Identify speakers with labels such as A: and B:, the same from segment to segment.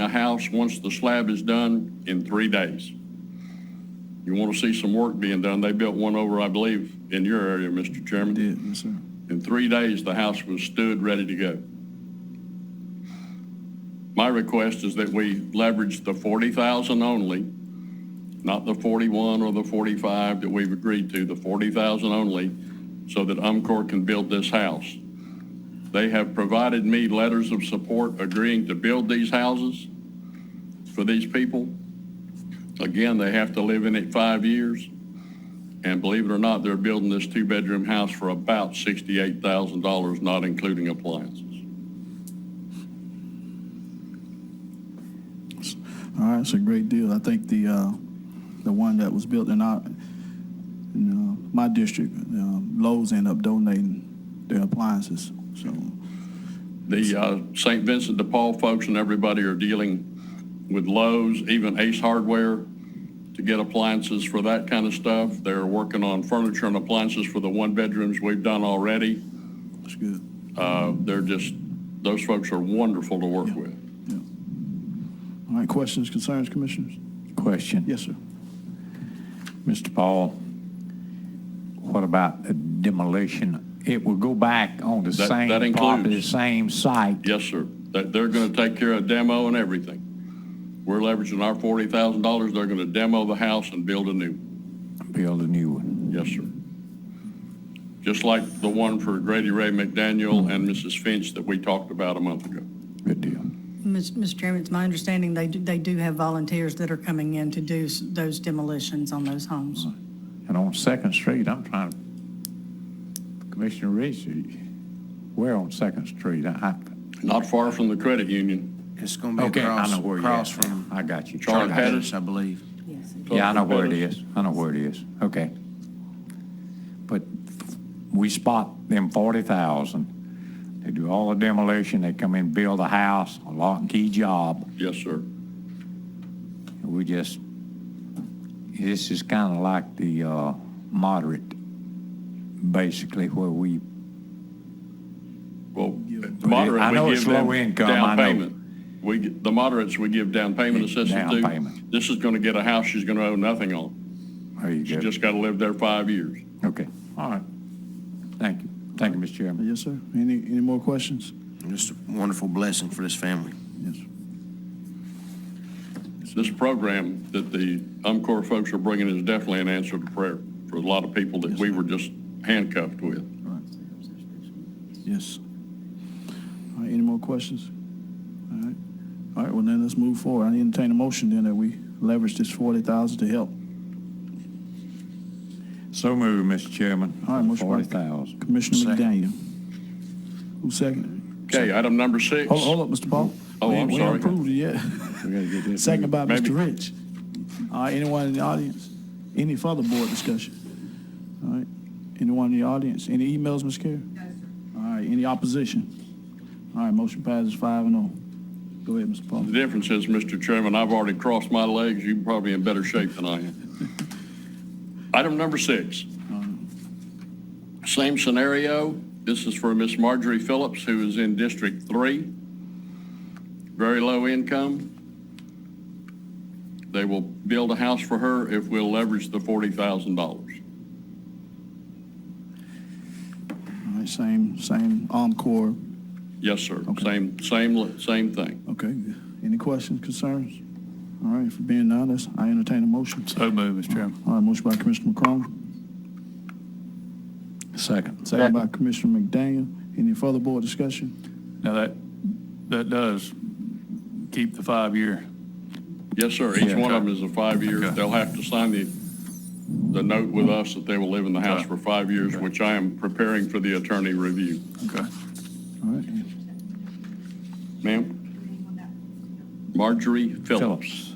A: a house, once the slab is done, in three days. You want to see some work being done, they built one over, I believe, in your area, Mr. Chairman.
B: Did, yes, sir.
A: In three days, the house was stood, ready to go. My request is that we leverage the 40,000 only, not the 41 or the 45 that we've agreed to, the 40,000 only, so that Umcor can build this house. They have provided me letters of support agreeing to build these houses for these people. Again, they have to live in it five years. And believe it or not, they're building this two-bedroom house for about $68,000, not including appliances.
B: All right, it's a great deal. I think the, uh, the one that was built in our, in, uh, my district, um, Lowe's ended up donating their appliances, so.
A: The uh, St. Vincent de Paul folks and everybody are dealing with Lowe's, even Ace Hardware, to get appliances for that kind of stuff. They're working on furniture and appliances for the one-bedrooms we've done already.
B: It's good.
A: Uh, They're just, those folks are wonderful to work with.
B: All right, questions, concerns, commissioners?
C: Question.
B: Yes, sir.
C: Mr. Paul, what about the demolition? It will go back on the
A: That- that
C: same
A: includes-
C: property, the same site.
A: Yes, sir. That they're going to take care of demo and everything. We're leveraging our $40,000. They're going to demo the house and build a new. one.
C: Build a new one.
A: Yes, sir. Just like the one for Grady Ray McDaniel and Mrs. Finch that we talked about a month ago.
C: Good deal.
D: Ms- Mr. Chairman, it's my understanding they do, they do have volunteers that are coming in to do s- those demolitions on those homes.
C: And on Second Street, I'm trying, to Commissioner Reese, where on Second Street? I-
A: Not far from the credit union.
E: It's going
C: I-
E: to be
C: Okay, I
E: across,
C: know where you're
E: across
C: at now.
E: from
C: I got you.
A: Charlie
E: Charlie
A: Patterson.
E: Pettis, I believe.
C: Yeah, I know where it
A: Charlie
C: is. I know where it is. Okay. But we spot them forty thousand. They do all the demolition. They come in, build a house, a lock and key job.
A: Yes, sir.
C: We just, this is kind of like the uh, moderate, basically, where we,
A: Well, moderate,
C: I know
A: we
C: it's
A: give
C: low
A: them
C: income, I
A: down
C: know.
A: payment. We, g- the moderates, we give down payment assistance
C: Down
A: to.
C: payment.
A: This is going to get a house she's going to owe nothing on.
C: there
A: She
C: you go.
A: just got to live there five years.
C: Okay, all right. Thank you. Thank you, Mr. Chairman.
B: Yes, sir. Any, any more questions?
E: Just a wonderful blessing for this family.
B: Yes.
A: This program that the UMCOR folks are bringing is definitely an answer to prayer for a lot of people that we were just handcuffed with.
B: Yes. All right, any more questions? All right, all right, well, then let's move forward. I entertain a motion then that we leverage this forty thousand to help.
C: So moved, Mr. Chairman.
B: All right, motion by-
C: Forty thousand.
B: Commissioner
E: Second.
B: McDaniel. Who seconded?
A: Okay, item number six.
B: Hold, hold up, Mr. Paul.
A: Oh,
B: We-
A: I'm
B: We
A: sorry.
B: ain't approved it yet.
C: We gotta get this.
B: Second by
A: Maybe.
B: Mr. Rich. All right, anyone in the audience? Any further board discussion? All right, anyone in the audience? Any emails, Ms. Carey? No, sir. All right, any opposition? All right, motion passes five and oh. Go ahead, Mr. Paul.
A: The difference is, Mr. Chairman, I've already crossed my legs. You're probably in better shape than I am. Item number six. Same scenario. This is for Miss Marjorie Phillips, who is in District Three. Very low income. They will build a house for her if we'll leverage the forty thousand dollars.
B: All right, same, same Encore.
A: Yes, sir.
B: Okay.
A: Same, same, same thing.
B: Okay, any questions, concerns? All right, for being honest, I entertain a motion.
A: Uh,
F: So moved, Mr. Chairman.
B: All right, motion by Commissioner McCrone,
F: Second.
B: second by Commissioner McDaniel. Any further board discussion?
F: Now, that, that does keep the five-year.
A: Yes, sir. Each
F: Yeah.
A: one of them is a five-year.
F: Okay.
A: They'll have to sign the, the note with us that they will live in the house
F: Okay.
A: for five years, which I am preparing for the attorney review.
F: Okay.
B: All right,
A: Ma'am? Marjorie Phillips.
C: Phillips.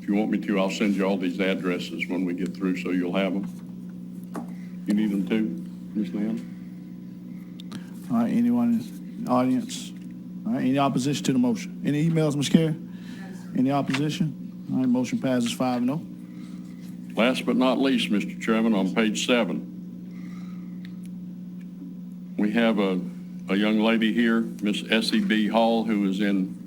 A: If you want me to, I'll send you all these addresses when we get through, so you'll have them. You need them too, Ms. Nam?
B: all right, anyone in the audience? All right, any opposition to the motion? Any emails, Ms. Carey? Any opposition? All right, motion passes five and oh.
A: Last but not least, Mr. Chairman, on page seven, we have a, a young lady here, Miss S.E.B. E Hall, who is in